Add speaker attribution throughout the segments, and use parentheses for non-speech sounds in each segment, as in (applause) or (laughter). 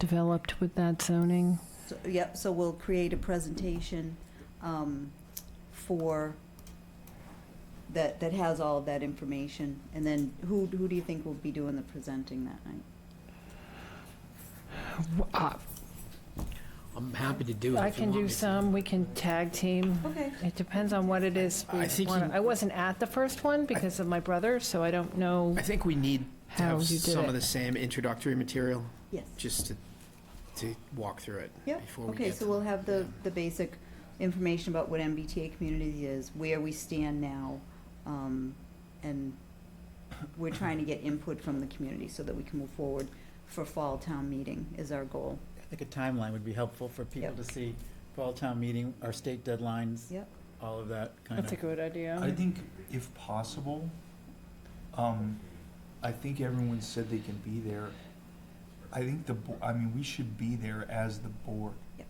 Speaker 1: developed with that zoning?
Speaker 2: So- Yep, so we'll create a presentation um, for, that, that has all of that information. And then who, who do you think will be doing the presenting that night?
Speaker 1: Uh,
Speaker 3: I'm happy to do it.
Speaker 1: I
Speaker 3: if you
Speaker 1: can
Speaker 3: want
Speaker 1: do
Speaker 3: me to.
Speaker 1: some, we can tag team.
Speaker 2: Okay.
Speaker 1: It depends on what it is. we
Speaker 3: I think
Speaker 1: wanna-
Speaker 3: you-
Speaker 1: I wasn't at the first one because of my brother, so I don't know.
Speaker 3: I think we need to
Speaker 1: How
Speaker 3: have
Speaker 1: you did
Speaker 3: some
Speaker 1: it.
Speaker 3: of the same introductory material,
Speaker 2: Yes.
Speaker 3: just to, to walk through it.
Speaker 2: Yep,
Speaker 3: before we
Speaker 2: okay,
Speaker 3: get
Speaker 2: so
Speaker 3: to-
Speaker 2: we'll have the,
Speaker 3: yeah.
Speaker 2: the basic information about what MBTA community is, where we stand now, um, and we're trying to get input from the community so that we can move forward for fall town meeting is our goal.
Speaker 4: I think a timeline would be helpful for people
Speaker 2: Yep.
Speaker 4: to see, fall town meeting, our state deadlines,
Speaker 2: Yep.
Speaker 4: all of that kind
Speaker 1: That's a
Speaker 4: of.
Speaker 1: good idea.
Speaker 5: I think if possible, um, I think everyone said they can be there. I think the, bo- I mean, we should be there as the board.
Speaker 2: Yep.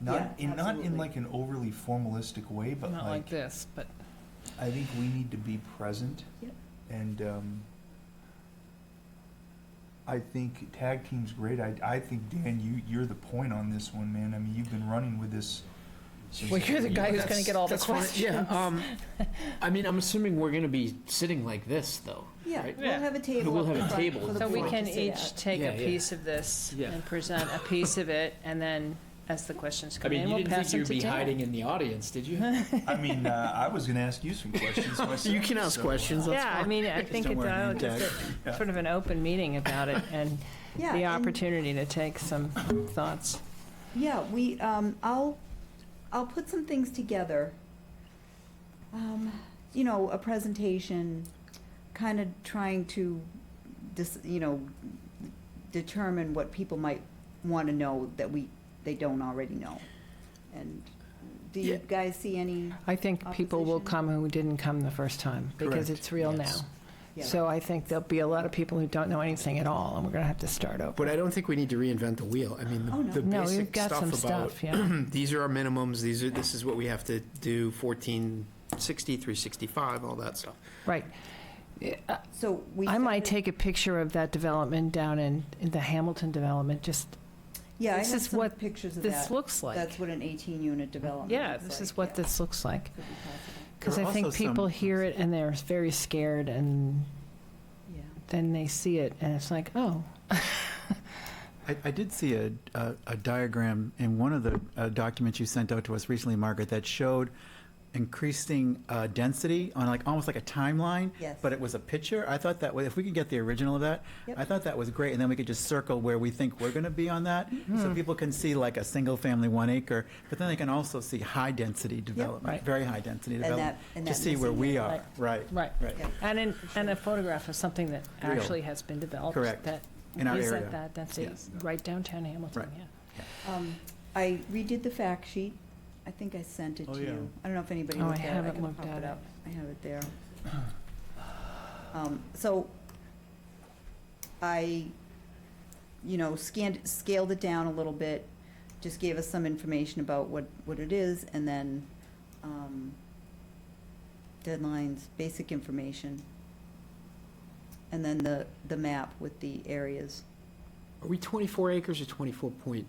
Speaker 5: Not,
Speaker 2: Yeah,
Speaker 5: in not
Speaker 2: absolutely.
Speaker 5: in like an overly formalistic way, but
Speaker 1: Not like
Speaker 5: like,
Speaker 1: this, but
Speaker 5: I think we need to be present.
Speaker 2: Yep.
Speaker 5: And, um, I think tag team's great. I, I think, Dan, you, you're the point on this one, man. I mean, you've been running with this since.
Speaker 1: Well, you're the guy who's gonna
Speaker 3: That's-
Speaker 1: get all the
Speaker 3: that's fine.
Speaker 1: questions.
Speaker 3: Yeah,
Speaker 1: (laughs)
Speaker 3: um, I mean, I'm assuming we're gonna be sitting like this, though,
Speaker 2: Yeah,
Speaker 3: right?
Speaker 2: we'll have a table.
Speaker 3: We'll
Speaker 2: up
Speaker 3: have a
Speaker 2: in front
Speaker 3: table
Speaker 2: for the
Speaker 1: So we
Speaker 2: board
Speaker 1: can
Speaker 2: to sit
Speaker 1: each
Speaker 2: at.
Speaker 1: take
Speaker 3: Yeah,
Speaker 1: a
Speaker 3: yeah.
Speaker 1: piece of this
Speaker 3: Yeah.
Speaker 1: and present a piece of it, and then as the questions
Speaker 3: I
Speaker 1: come
Speaker 3: mean,
Speaker 1: in,
Speaker 3: you
Speaker 1: we'll
Speaker 3: didn't
Speaker 1: pass
Speaker 3: think
Speaker 1: them
Speaker 3: you'd
Speaker 1: to
Speaker 3: be hiding
Speaker 1: Dale.
Speaker 3: in the audience, did
Speaker 1: (laughs)
Speaker 3: (laughs) you?
Speaker 5: I mean,
Speaker 2: (laughs)
Speaker 5: uh, I was gonna ask you some questions myself.
Speaker 3: You can ask
Speaker 5: so, uh,
Speaker 3: questions, that's
Speaker 1: Yeah, I
Speaker 3: fine. (laughs)
Speaker 1: mean, I think
Speaker 4: don't
Speaker 1: it's
Speaker 4: wear a
Speaker 1: uh,
Speaker 4: name
Speaker 1: just a- sort of an open meeting about it and
Speaker 2: Yeah,
Speaker 1: the
Speaker 2: and-
Speaker 1: opportunity to take some thoughts.
Speaker 2: Yeah, we, um, I'll, I'll put some things together. Um, you know, a presentation, kind of trying to dis, you know, determine what people might want to know that we, they don't already know. And do you
Speaker 3: Yeah.
Speaker 2: guys see any?
Speaker 1: I think people will
Speaker 2: Opposition?
Speaker 1: come who didn't come the first time, because
Speaker 3: Correct.
Speaker 1: it's real now.
Speaker 3: Yes.
Speaker 2: yeah.
Speaker 1: So I think there'll be a lot of people who don't know anything at all, and we're gonna have to start over.
Speaker 3: But I don't think we need to reinvent the wheel. I mean,
Speaker 2: Oh, no.
Speaker 3: the- the
Speaker 1: No, we've
Speaker 3: basic
Speaker 1: got some
Speaker 3: stuff about,
Speaker 1: stuff, yeah.
Speaker 3: (clears throat) these are our minimums, these are, this is what we have to do, 1460, 365, all that stuff.
Speaker 1: Right.
Speaker 2: So we.
Speaker 1: I might
Speaker 2: started-
Speaker 1: take a picture of that development down in, in the Hamilton development, just,
Speaker 2: Yeah, I
Speaker 1: this
Speaker 2: have
Speaker 1: is
Speaker 2: some
Speaker 1: what
Speaker 2: pictures of that.
Speaker 1: this looks like.
Speaker 2: That's what an eighteen-unit development
Speaker 1: Yeah,
Speaker 2: looks
Speaker 1: this
Speaker 2: like,
Speaker 1: is what
Speaker 2: yeah.
Speaker 1: this looks like.
Speaker 2: Could be possible,
Speaker 1: Because
Speaker 4: There
Speaker 1: I
Speaker 4: are
Speaker 1: think
Speaker 4: also some-
Speaker 1: people hear it and they're very scared, and
Speaker 2: yeah.
Speaker 1: then they see it, and it's like, oh,
Speaker 4: I, I did see a, a a diagram in one of the uh, documents you sent out to us recently, Margaret, that showed increasing uh, density on like, almost like a timeline.
Speaker 2: Yes.
Speaker 4: But it was a picture. I thought that, wa- if we could get the original of that,
Speaker 2: Yep.
Speaker 4: I thought that was great. And then we could just circle where we think we're going to be on that.
Speaker 2: Mm-hmm.
Speaker 4: So people can see like a single family, one acre, but then they can also see high density
Speaker 1: Right.
Speaker 4: development, very high density
Speaker 2: that-
Speaker 4: development.
Speaker 2: and
Speaker 4: To
Speaker 2: that
Speaker 4: see where
Speaker 2: missing link.
Speaker 4: we are, right.
Speaker 1: right.
Speaker 4: Right.
Speaker 2: Yeah.
Speaker 1: And in, and a photograph of something that
Speaker 4: Real.
Speaker 1: actually has been developed.
Speaker 4: Correct.
Speaker 1: That
Speaker 4: In our
Speaker 1: is at
Speaker 4: area.
Speaker 1: that density,
Speaker 4: Yes.
Speaker 1: right downtown Hamilton,
Speaker 4: Right.
Speaker 1: yeah.
Speaker 2: Um, I redid the fact sheet. I think I sent it
Speaker 4: Oh,
Speaker 2: to
Speaker 4: yeah.
Speaker 2: you. I don't know if anybody
Speaker 1: Oh, I
Speaker 2: looked at it.
Speaker 1: haven't
Speaker 2: can
Speaker 1: looked
Speaker 2: pop
Speaker 1: at it.
Speaker 2: up. I have it
Speaker 1: (clears throat)
Speaker 2: there. Um, So I, you know, scanned, scaled it down a little bit, just gave us some information about what, what it is, and then um, deadlines, basic information, and then the, the map with the areas.
Speaker 3: Are we 24 acres or 24.8?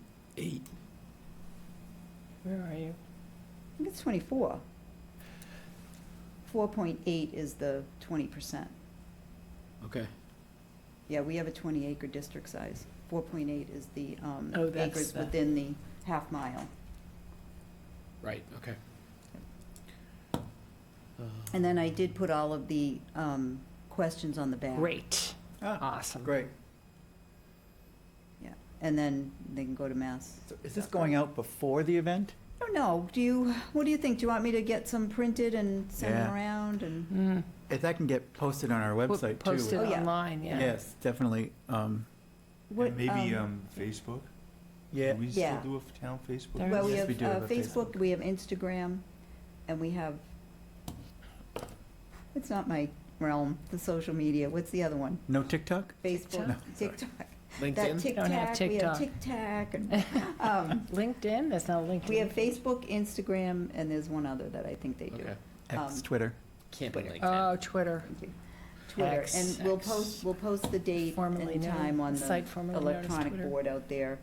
Speaker 1: Where are you?
Speaker 2: I think it's 24. 4.8 is the 20%.
Speaker 3: Okay.
Speaker 2: Yeah, we have a 20-acre district size. 4.8 is the um,
Speaker 1: Oh, that's
Speaker 2: acres
Speaker 1: the-
Speaker 2: within the half mile.
Speaker 3: Right, okay.
Speaker 2: And then I did put all of the um, questions on the back.
Speaker 1: Great,
Speaker 4: Ah,
Speaker 1: awesome.
Speaker 4: Great.
Speaker 2: And then they can go to Mass.
Speaker 4: So Is this going out before the event?
Speaker 2: I don't know, do you, what do you think? Do you want me to get some printed and send them
Speaker 4: Yeah.
Speaker 2: around and?
Speaker 1: Mm.
Speaker 4: If that can get posted on our website too.
Speaker 1: Posted
Speaker 2: Oh, yeah.
Speaker 1: online, yeah.
Speaker 4: Yes, definitely. Um,
Speaker 2: what,
Speaker 5: And maybe um, Facebook? Do we
Speaker 2: Yeah.
Speaker 5: still do a town Facebook?
Speaker 1: There
Speaker 2: Well, we
Speaker 4: Yes,
Speaker 2: have
Speaker 4: we do have
Speaker 2: uh,
Speaker 4: a
Speaker 2: Facebook, we have Instagram, and we have, it's not my realm, the social media. What's the other one?
Speaker 4: No TikTok?
Speaker 2: Facebook,
Speaker 4: No, sorry.
Speaker 2: TikTok. That
Speaker 3: LinkedIn?
Speaker 2: Tic
Speaker 1: Don't have
Speaker 2: Tac, we
Speaker 1: TikTok.
Speaker 2: have Tic Tac. and,
Speaker 1: (laughs)
Speaker 2: um,
Speaker 1: LinkedIn, there's no LinkedIn.
Speaker 2: We have Facebook, Instagram, and there's one other that I think they do.
Speaker 3: Okay.
Speaker 4: X,
Speaker 2: Um,
Speaker 4: Twitter.
Speaker 3: Can't be LinkedIn.
Speaker 1: Oh, Twitter,
Speaker 2: Thank you. Twitter,
Speaker 1: X.
Speaker 2: and we'll post, we'll post the date
Speaker 1: formerly
Speaker 2: and
Speaker 1: known.
Speaker 2: time on
Speaker 1: site
Speaker 2: the
Speaker 1: formerly known as
Speaker 2: electronic
Speaker 1: Twitter.
Speaker 2: board out there.